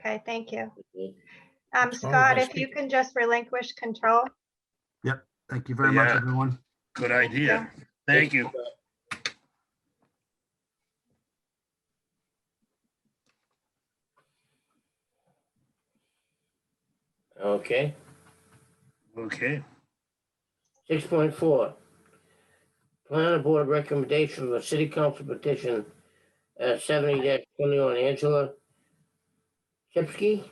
Okay, thank you. Mhm. Um, That's fine, Scott, that's if you good. can just relinquish control. Thank you very much, Yeah. everyone. Good idea. Thank you. Okay, Okay, six point four. Planning board recommendation for city council petition uh seventy twenty-one Angela Chipsky.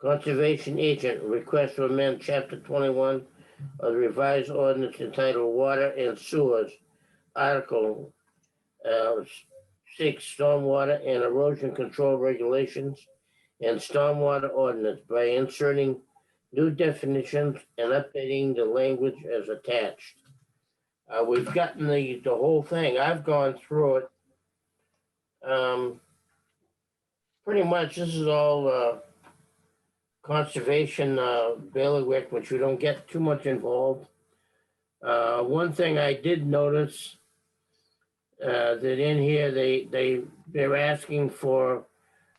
Conservation agent request to amend chapter twenty-one of the revised ordinance entitled Water and Sewers, Article uh six, stormwater and erosion control regulations and stormwater ordinance by inserting new definitions and updating the language as attached. Uh, we've gotten the, the whole thing. I've gone through it. Um, pretty much this is all, uh, conservation, uh, bailiwick, which we don't get too much involved. Uh, one thing I did notice, uh, that in here, they, they, they're asking for,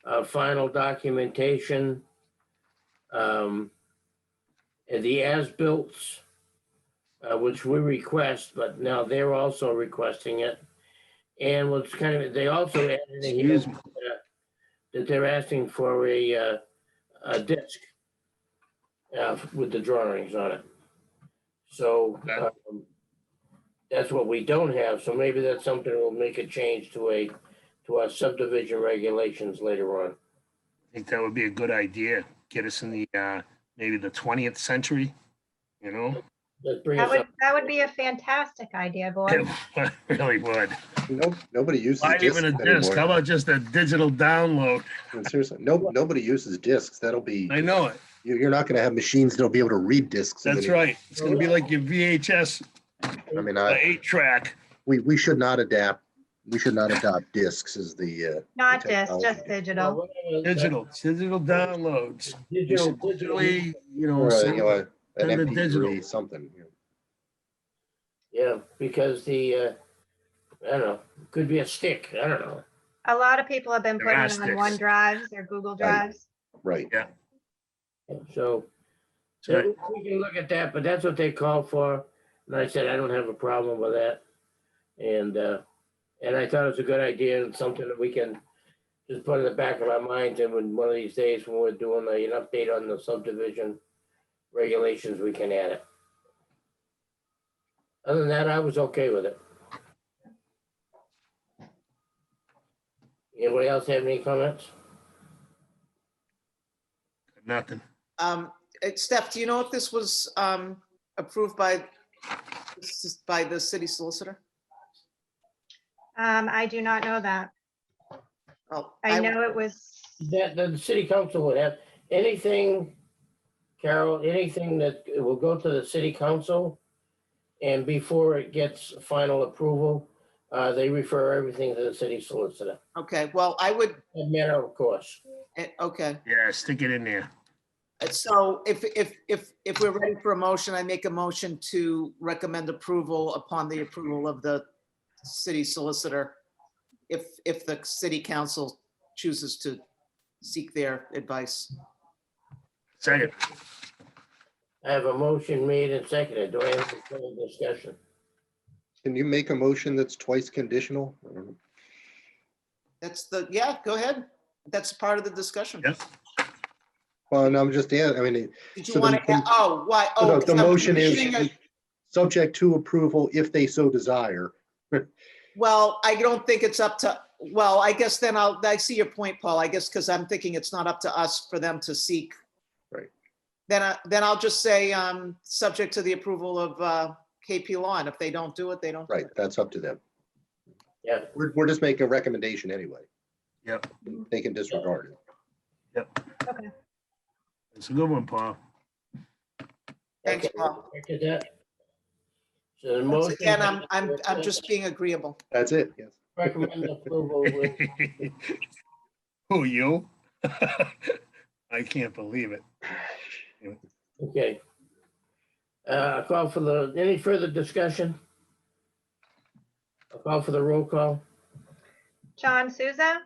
uh, final documentation. Um, and the as-bills, uh, which we request, but now they're also requesting it. And what's kind of, they also added in here excuse me. that they're asking for a, uh, a disc uh, with the drawings on it. So, Okay. um, that's what we don't have, so maybe that's something that will make a change to a, to our subdivision regulations later on. I think that would be a good idea. Get us in the, uh, maybe the twentieth century, you know? Let's bring That us would, up. that would be a fantastic idea, boy. It Really would. Nope, nobody uses Not discs even a disc. How anymore. about just a digital download? And Seriously, no, nobody uses discs. That'll be, I know it. you- you're not gonna have machines that'll be able to read discs. in the That's near- right. It's gonna be like your VHS, I mean, uh, I, eight track. we, we should not adapt, we should not adopt discs as the, uh, Not this, just Technology. digital. Digital, digital downloads. You Digital, should digitally, Digitally, you Oh, know, or, uh, you know, send- a- an send the MP3, digital. something. you know. yeah, because the, uh, I don't know, could be a stick, I don't know. A lot of people have been putting it on Gymnastics. OneDrives or Google Drives. Right, So Right. So we can look at that, but that's what they called for. And I said, I don't have a problem with that. And, uh, and I thought it was a good idea and something that we can just put in the back of our minds and when one of these days when we're doing a- an update on the subdivision regulations, we can add it. Other than that, I was okay with it. Anybody else have any comments? nothing. Um, eh, Steph, do you know if this was, um, approved by, by the city solicitor? Um, I do not know that. Oh, I know it was, That, that the city council would have, anything, Carol, anything that will go to the city council, and before it gets final approval, uh, they refer everything to the city solicitor, Okay, well, I would, a matter of course. eh, okay. Yeah, stick it in there. Eh, So if, if, if, if we're ready for a motion, I make a motion to recommend approval upon the approval of the city solicitor. If, if the city council chooses to seek their advice. Second, I have a motion made and seconded, do I have any further discussion? can you make a motion that's twice conditional? Or- That's the, yeah, go ahead. That's part of the discussion. Yep. Well, no, I'm just, yeah, I mean, it- Did So you the- want to, oh, why? so Oh, the- the so motion conditioning is it- subject to approval if they so desire. Well, I don't think it's up to, well, I guess then I'll, I see your point, Paul, I guess, because I'm thinking it's not up to us for them to seek. Right. Then I, then I'll just say, um, subject to the approval of, uh, KP Law, and if they don't do it, they don't. do Right, it. that's up to them. Yeah. We're, we're just making a recommendation anyway. Yep. They can disregard it. it's a good one, Paul. Thanks, Okay, Paul. look at that. So the Once motion. again, I'm, I'm, I'm just being agreeable. That's it, yes. Recommend approval with Who, you? I can't believe it. Okay. Uh, a call for the, any further discussion? A call for the roll call? John Souza,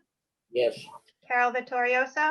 Yes. Carol Vittorioso,